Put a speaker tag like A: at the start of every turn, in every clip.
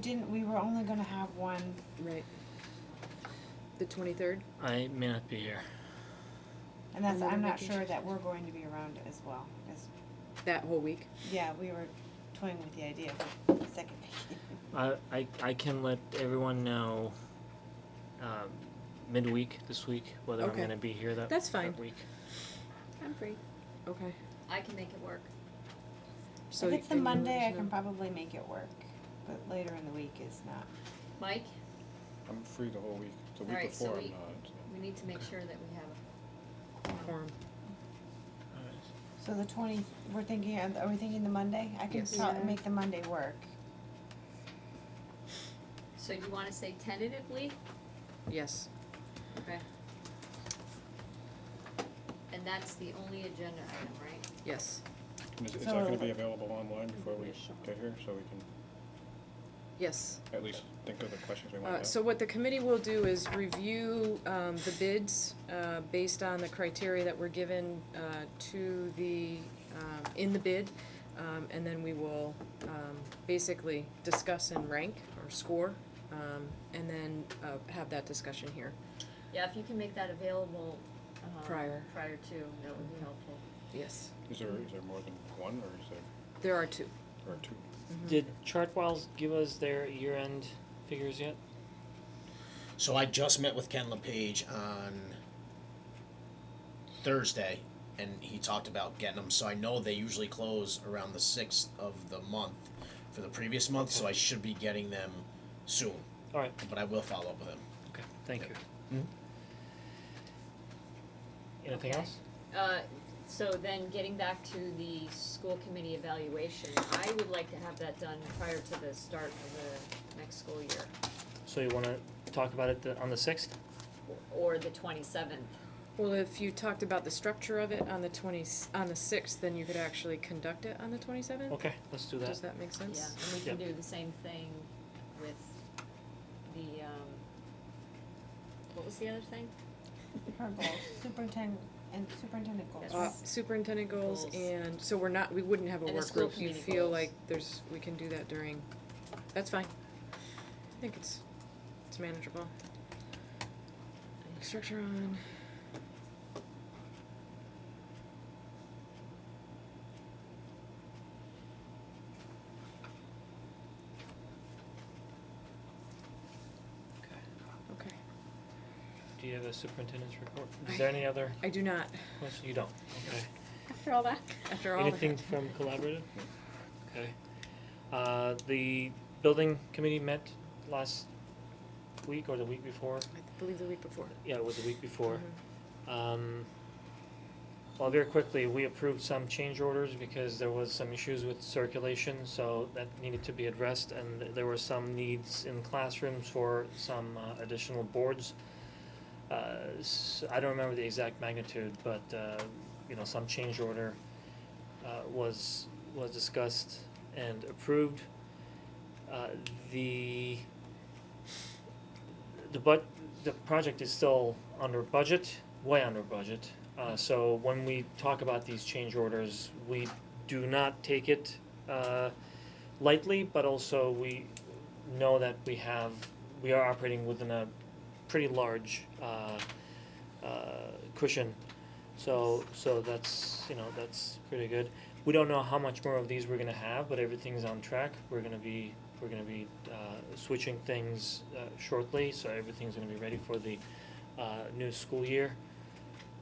A: Didn't, we were only gonna have one,
B: Right. The twenty-third?
C: I may not be here.
A: and that's,
B: Another
A: I'm not
B: vacation.
A: sure that we're going to be around as well, as,
B: That whole week?
A: yeah, we were toying with the idea of a second vacation.
C: I, I, I can let everyone know um, midweek this week whether I'm
B: Okay.
C: going to be here that,
B: That's fine.
C: that week.
B: I'm free. Okay.
D: I can make it work.
B: So
A: If it's the
B: and you let
A: Monday, I
B: us
A: can
B: know.
A: probably make it work, but later in the week is not.
D: Mike,
E: I'm free the whole week, the week
D: Alright, so
E: before I'm
D: we-
E: not. so-
D: we need to make sure that we have
B: Quorum.
C: Alright.
A: So the twenty, we're thinking, are we thinking the Monday? I can
B: Yes.
A: probably
B: Yeah.
A: make the Monday work.
D: a, so you wanna say tentatively?
B: Yes.
D: Okay. And that's the only agenda item, right?
B: Yes.
E: And Is, is
A: So-
E: that gonna be available online before we get here, so we can
B: Yes.
E: at least think of the questions we wanna
B: Uh,
E: ask?
B: so what the committee will do is review, um, the bids, uh, based on the criteria that were given, uh, to the, um, in the bid. Um, and then we will, um, basically discuss and rank or score, um, and then, uh, have that discussion here.
D: Yeah, if you can make that available, um,
B: Prior.
D: prior to, that would be helpful.
B: Yes.
E: Is there, is there more than one, or is there,
B: There are two.
E: or two?
B: Mm-hmm.
C: Did Chartwells give us their year end figures yet?
F: So I just met with Ken LePage on Thursday, and he talked about getting them. So I know they usually close around the sixth of the month for the previous month. So I should be getting them soon,
C: Alright,
F: but I will follow up with him.
C: okay, thank you.
F: Mhm.
C: Anything
D: Okay.
C: else?
D: Uh, so then getting back to the school committee evaluation, I would like to have that done prior to the start of the next school year,
C: So you want to talk about it the, on the 6th?
D: or the twenty-seventh.
B: Well, if you talked about the structure of it on the twenty, on the sixth, then you could actually conduct it on the twenty-seventh?
C: Okay, let's Oh, do that.
B: Does that make sense?
D: Yeah, and we can do the same thing with the, um, what was the other thing?
A: Her goals, superintendent, and superintendent goals.
D: Yes.
B: Uh, superintendent goals
D: Goals.
B: and, so we're not, we wouldn't have a
D: And the
B: work
D: school
B: group, you
D: committee
B: feel
D: goals.
B: like there's, we can do that during, that's fine. I think it's, it's manageable. Structure on. Okay,
C: Do you have a superintendent's report?
B: I-
C: Is there any other
B: I do not,
C: questions? You don't. Okay.
D: After all that.
B: after all of
C: Anything
B: that.
C: from collaborative? Okay. Uh, the building committee met last week or the week before?
B: I believe the week before. Mm-hmm.
C: Yeah, it was the week before. Um, well, very quickly, we approved some change orders because there was some issues with circulation, so that needed to be addressed, and th- there were some needs in classrooms for some uh, additional boards. Uh, s- I don't remember the exact magnitude, but, uh, you know, some change order, uh, was, was discussed and approved. Uh, the, the but, the project is still under budget, way under budget. Uh, so when we talk about these change orders, we do not take it, uh, lightly, but also we know that we have, we are operating within a pretty large, uh, uh, cushion. So, so that's, you know, that's pretty good. We don't know how much more of these we're gonna have, but everything's on track. We're gonna be, we're gonna be, uh, switching things, uh, shortly, so everything's gonna be ready for the, uh, new school year.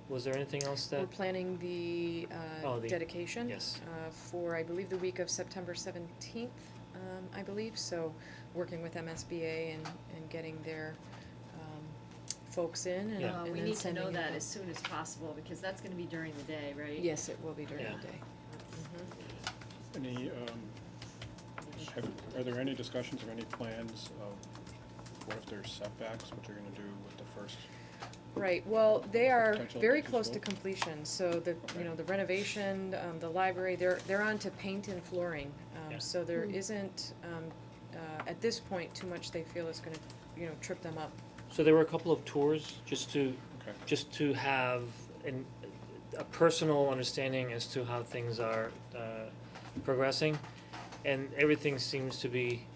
C: Was there anything else
B: We're
C: that,
B: planning the, uh,
C: Oh, the-
B: dedication.
C: yes,
B: uh, for, I believe, the week of September seventeenth, um, I believe, so working with MSBA and, and getting their, um, folks in and,
C: Yeah.
D: Uh,
B: and
D: we
B: then
D: need to
B: sending
D: know
B: it
D: that
B: out.
D: as soon as possible, because that's gonna be during the day, right? Mm-hmm.
B: Yes, it will be during the
C: Yeah.
B: day.
E: Any, um, have, are there any discussions or any plans of what if there's setbacks, what you're gonna do with the first?
B: Right, well, they are
E: Potential
B: very
E: additional.
B: close to completion, so the, you know, the renovation, um, the library, they're, they're on to paint and flooring.
C: Yeah.
B: Um, so there
D: Hmm.
B: isn't, um, uh, at this point, too much they feel is gonna, you know, trip them up.
C: so there were a couple of tours just to
E: Okay,
C: just to have an, a personal understanding as to how things are uh, progressing, and everything seems to be